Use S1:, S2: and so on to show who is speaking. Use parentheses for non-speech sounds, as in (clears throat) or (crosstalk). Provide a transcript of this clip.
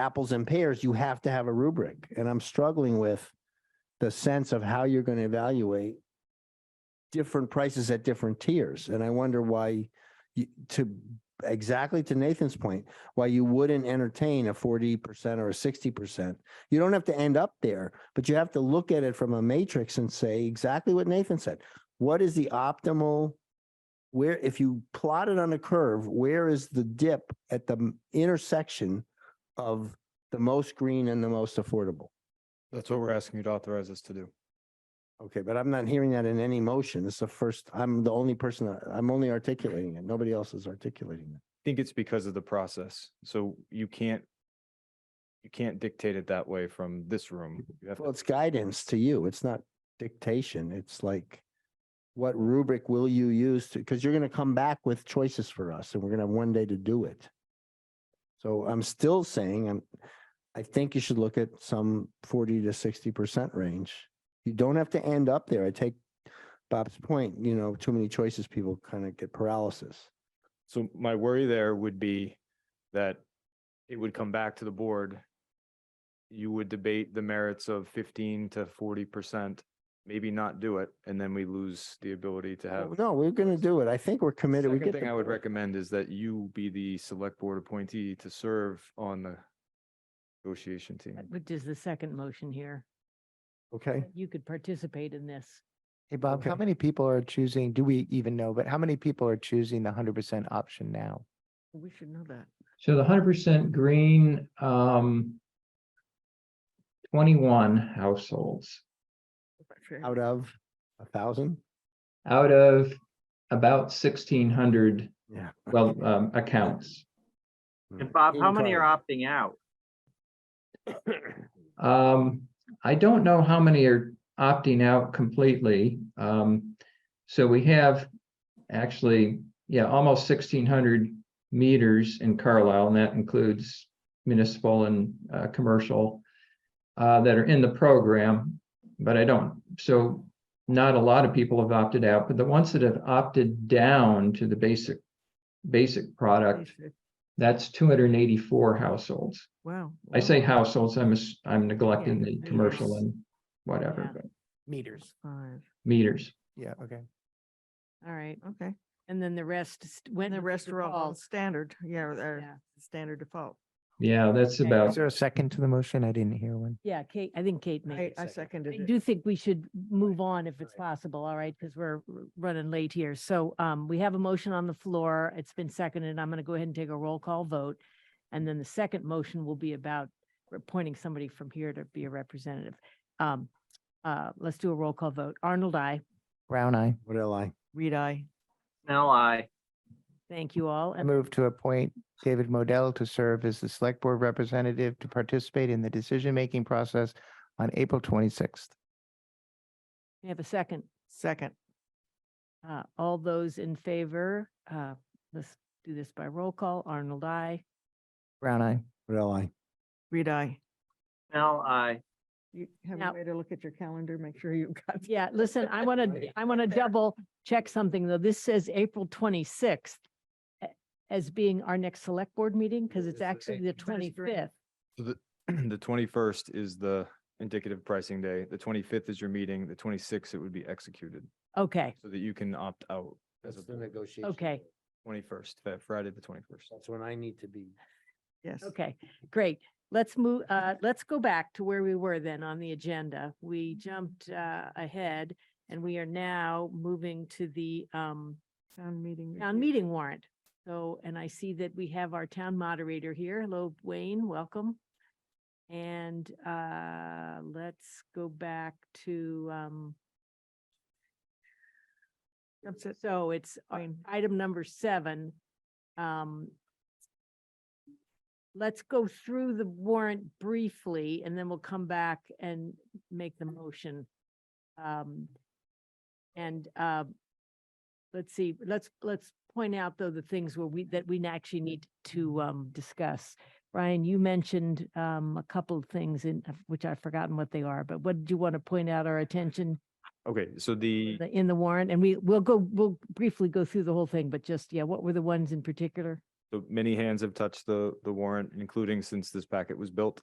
S1: apples and pears, you have to have a rubric. And I'm struggling with the sense of how you're going to evaluate different prices at different tiers. And I wonder why you, to, exactly to Nathan's point, why you wouldn't entertain a forty percent or a sixty percent. You don't have to end up there, but you have to look at it from a matrix and say exactly what Nathan said. What is the optimal? Where, if you plot it on a curve, where is the dip at the m- intersection of the most green and the most affordable?
S2: That's what we're asking you to authorize us to do.
S1: Okay, but I'm not hearing that in any motion. It's the first, I'm the only person, that- I'm only articulating it. Nobody else is articulating it.
S2: I think it's because of the process. So you can't you can't dictate it that way from this room.
S1: Mm-hmm.
S2: You have to-
S1: Well, it's guidance to you. It's not dictation. It's like, what rubric will you use to, because you're going to come back with choices for us and we're going to have one day to do it. So I'm still saying, I'm, I think you should look at some forty to sixty percent range. You don't have to end up there. I take Bob's point, you know, too many choices, people kind of get paralysis.
S2: So my worry there would be that it would come back to the board. You would debate the merits of fifteen to forty percent, maybe not do it, and then we lose the ability to have.
S1: Well, No, we're gonna do it. I think we're committed. We
S2: Second
S1: get
S2: thing
S1: the
S2: I would
S1: board.
S2: recommend is that you be the select board appointee to serve on the negotiation team.
S3: Which is the second motion here.
S1: Okay.
S3: You could participate in this.
S4: Hey, Bob, how
S1: Okay.
S4: many people are choosing, do we even know, but how many people are choosing the hundred percent option now?
S3: We should know that.
S5: So the hundred percent green, um. Twenty-one households
S1: Out of a thousand?
S5: out of about sixteen hundred,
S1: Yeah.
S5: well, um, accounts.
S1: Hmm.
S6: And Bob, how many are
S1: Incredible.
S6: opting out?
S5: Um, I don't know how many are opting out completely. Um, so we have actually, yeah, almost sixteen hundred meters in Carlisle, and that includes municipal and uh, commercial uh, that are in the program, but I don't, so not a lot of people have opted out, but the ones that have opted down to the basic basic product, that's two hundred and eighty-four households.
S3: Wow.
S5: I say households, I'm, ass- I'm neglecting the
S3: Yeah,
S5: commercial
S3: meters.
S5: and whatever,
S3: Yeah.
S5: but
S4: Meters.
S3: Five.
S5: meters.
S4: Yeah, okay.
S3: All right.
S7: Okay,
S3: And then the rest st- went.
S7: and the
S3: with
S7: rest are all
S3: default.
S7: standard, yeah, or
S3: Yeah.
S7: they're standard default.
S5: Yeah, that's
S3: Okay.
S5: about,
S4: Is there a second to the motion? I didn't hear one.
S3: Yeah, Kate, I think Kate made
S7: I,
S3: it.
S7: I
S3: I
S7: seconded it.
S3: do think we should move on if it's possible, all right, because we're r- running late here. So um, we have a motion on the floor. It's been seconded. I'm going to go ahead and take a roll call vote. And then the second motion will be about appointing somebody from here to be a representative. Um, uh, Let's do a roll call vote. Arnold, I
S4: Brown eye.
S1: What did I lie?
S7: Reed, I,
S6: Snell, I.
S3: Thank you all.
S4: I
S3: And
S4: move to appoint David Modell to serve as the select board representative to participate in the decision-making process on April twenty-sixth.
S3: we have a second.
S7: second,
S3: Uh, All those in favor, uh, let's do this by roll call. Arnold, I.
S4: Brown eye.
S1: What did I lie?
S7: Reed, I.
S6: Snell, I.
S7: You have
S3: Now-
S7: a way to look at your calendar, make sure you've got.
S3: Yeah,
S7: (laughs)
S3: listen, I want to, I want to double check something though. This says April twenty-sixth as being our next select board meeting because it's actually the
S7: First grade.
S3: twenty-fifth.
S2: So the, (clears throat) the twenty-first is the indicative pricing day. The twenty-fifth is your meeting. The twenty-sixth, it would be executed
S3: Okay,
S2: so that you can opt out as
S1: That's
S2: of
S1: the negotiation.
S3: Okay.
S2: twenty-first, Friday, the twenty-first.
S1: That's when I need to be.
S7: Yes.
S3: okay, great. Let's move, uh, let's go back to where we were then on the agenda. We jumped, uh, ahead and we are now moving to the, um,
S7: Town meeting.
S3: town
S7: review.
S3: meeting warrant. So, and I see that we have our town moderator here. Hello, Wayne, welcome. And uh, let's go back to um,
S7: That's it.
S3: so it's uh,
S7: Wayne.
S3: item number seven. Um, Let's go through the warrant briefly and then we'll come back and make the motion. Um, And uh, let's see, let's, let's point out though the things where we, that we actually need to um, discuss. Brian, you mentioned um, a couple of things in, of which I've forgotten what they are, but what did you want to point out our attention
S2: Okay, so the,
S3: the- in the warrant? And we, we'll go, we'll briefly go through the whole thing, but just, yeah, what were the ones in particular?
S2: So many hands have touched the, the warrant, including since this packet was built.